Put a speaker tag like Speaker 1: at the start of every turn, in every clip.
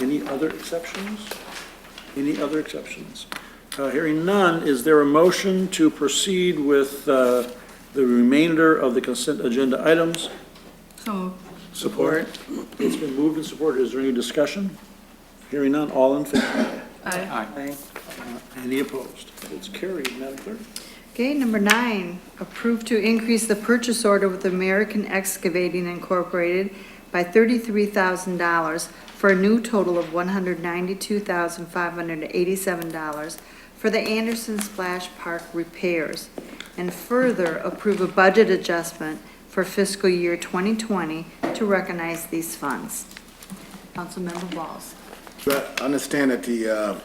Speaker 1: Any other exceptions? Any other exceptions? Uh, Hearing none, is there a motion to proceed with uh, the remainder of the consent agenda items?
Speaker 2: So moved.
Speaker 1: Support. It's been moved and supported. Is there any discussion? Hearing none, all in favor?
Speaker 2: Aye.
Speaker 1: Any opposed? It's carried, Madam Clerk.
Speaker 3: Okay, number nine, approve to increase the purchase order with American Excavating Incorporated by thirty-three thousand dollars for a new total of one hundred ninety-two thousand five hundred eighty-seven dollars for the Anderson Splash Park repairs. And further, approve a budget adjustment for fiscal year twenty twenty to recognize these funds. Councilmember Walls.
Speaker 4: But understand that the, uh,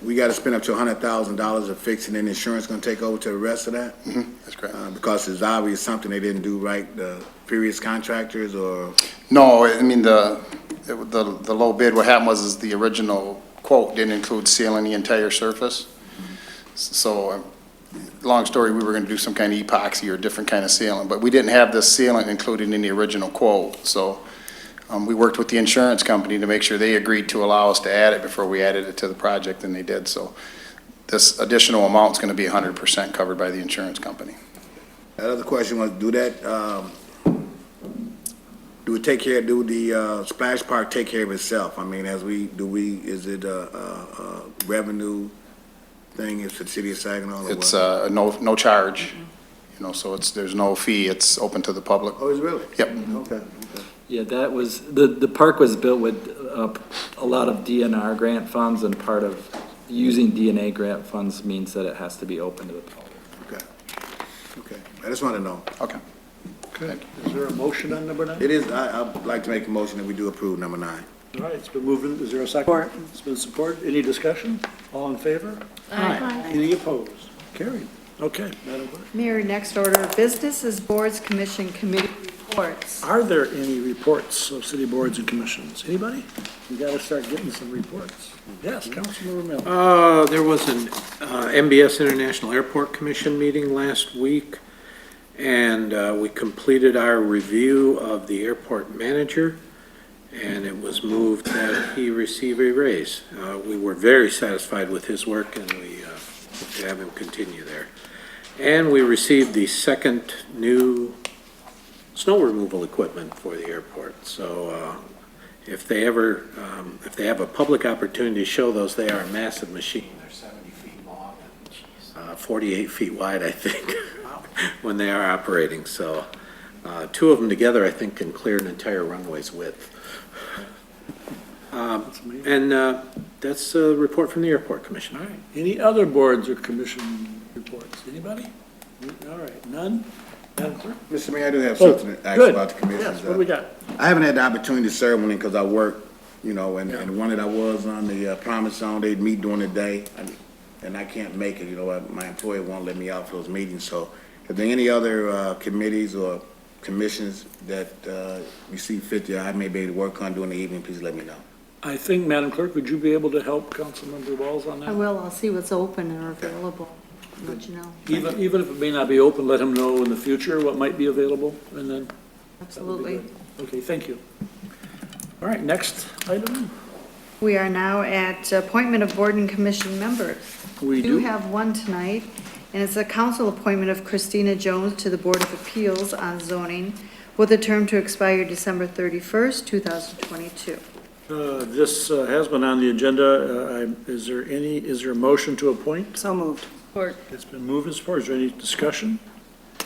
Speaker 4: we gotta spend up to hundred thousand dollars of fixing, and insurance gonna take over to the rest of that?
Speaker 5: Mm-hmm, That's correct.
Speaker 4: Uh, because it's obvious something they didn't do right, the previous contractors, or,
Speaker 5: No, I mean, the, it wa- the, the low bid, what happened was is the original quote didn't include sealing the entire surface. S- So, um, long story, we were gonna do some kind of epoxy or different kind of sealing, but we didn't have the sealant included in the original quote. So, um, we worked with the insurance company to make sure they agreed to allow us to add it before we added it to the project, and they did. So, this additional amount's gonna be hundred percent covered by the insurance company.
Speaker 4: that other question was, do that, um, do it take care, do the, uh, splash park take care of itself? I mean, as we, do we, is it a, a, a revenue thing, is the city of Saginaw, or what?
Speaker 5: It's, uh, no, no charge, you know, so it's, there's no fee, it's open to the public.
Speaker 4: Oh, is it really?
Speaker 5: Yep.
Speaker 4: Okay, okay.
Speaker 6: Yeah, that was, the, the park was built with uh, a lot of DNR grant funds, and part of using DNA grant funds means that it has to be open to the public.
Speaker 4: Okay, okay. I just wanna know.
Speaker 5: Okay.
Speaker 1: Okay. Is there a motion on number nine?
Speaker 4: It is, I, I'd like to make a motion that we do approve number nine.
Speaker 1: All right, it's been moved, and- is there a second? It's been supported, any discussion? All in favor? Aye. Any opposed? Carried. Okay, Madam Clerk.
Speaker 3: Mayor, next order of business is boards, commission, committee reports.
Speaker 1: Are there any reports of city boards and commissions? Anybody? We gotta start getting some reports. Yes, Councilmember Miller.
Speaker 7: Uh, there was an uh, MBS International Airport Commission meeting last week, and uh, we completed our review of the airport manager, and it was moved that he receive a raise. Uh, We were very satisfied with his work, and we uh, hope to have him continue there. And we received the second new snow removal equipment for the airport, so uh, if they ever, um, if they have a public opportunity to show those, they are a massive machine. They're 70 feet long and 48 feet wide, I think, when they are operating. So uh, two of them together, I think, can clear an entire runway's width. Um, And uh, that's a report from the Airport Commission.
Speaker 1: All right, any other boards or commission reports? Anybody? All right, none? Madam Clerk?
Speaker 4: Mr. Mayor, I do have
Speaker 1: Oh,
Speaker 4: something to ask
Speaker 1: good.
Speaker 4: about the commissions.
Speaker 1: Yes, what do we got?
Speaker 4: I haven't had the opportunity to serve one because I work, you know, and, and the one that I was on the uh, Promise Zone, they'd meet during the day, and- and I can't make it, you know, I- my employer won't let me out for those meetings, so if there any other, uh, committees or commissions that, uh, you see fit that I may be able to work on during the evening, please let me know.
Speaker 1: I think, Madam Clerk, would you be able to help Councilmember Walls on
Speaker 3: I
Speaker 1: that?
Speaker 3: will, I'll see what's open and available, and let you know,
Speaker 1: Even, even if it may not be open, let him know in the future what might be available, and then that would be
Speaker 3: absolutely.
Speaker 1: good. Okay, thank you. All right, next item?
Speaker 3: We are now at appointment of board and commission members.
Speaker 1: We
Speaker 3: We do
Speaker 1: do,
Speaker 3: have one tonight, and it's a council appointment of Christina Jones to the Board of Appeals on zoning with a term to expire December thirty-first, two thousand twenty-two.
Speaker 1: uh, this uh, has been on the agenda. Uh, I- Is there any, is there a motion to appoint?
Speaker 2: So moved.
Speaker 1: It's been moved and supported. Is there any discussion?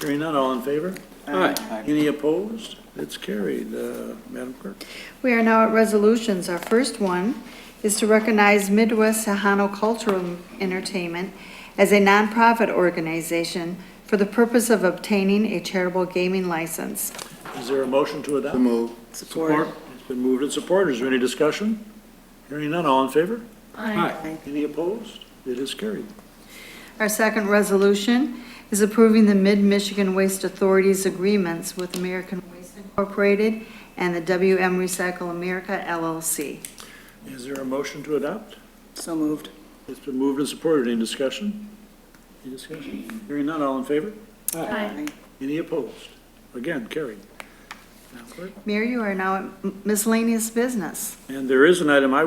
Speaker 1: Hearing none, all in favor?
Speaker 7: Aye.
Speaker 1: Any opposed? It's carried. Uh, Madam Clerk?
Speaker 3: We are now at resolutions. Our first one is to recognize Midwest Sahano Cultural Entertainment as a nonprofit organization for the purpose of obtaining a charitable gaming license.
Speaker 1: Is there a motion to adopt?
Speaker 4: So move.
Speaker 1: Support. It's been moved and supported. Is there any discussion? Hearing none, all in favor?
Speaker 7: Aye.
Speaker 1: Any opposed? It is carried.
Speaker 3: Our second resolution is approving the Mid-Michigan Waste Authority's agreements with American Waste Incorporated and the WM Recycle America LLC.
Speaker 1: Is there a motion to adopt?
Speaker 2: So moved.
Speaker 1: It's been moved and supported. Any discussion? Any discussion? Hearing none, all in favor?
Speaker 2: Aye.
Speaker 1: Any opposed? Again, carried. Madam Clerk?
Speaker 3: Mayor, you are now at miscellaneous business.
Speaker 1: And there is an item I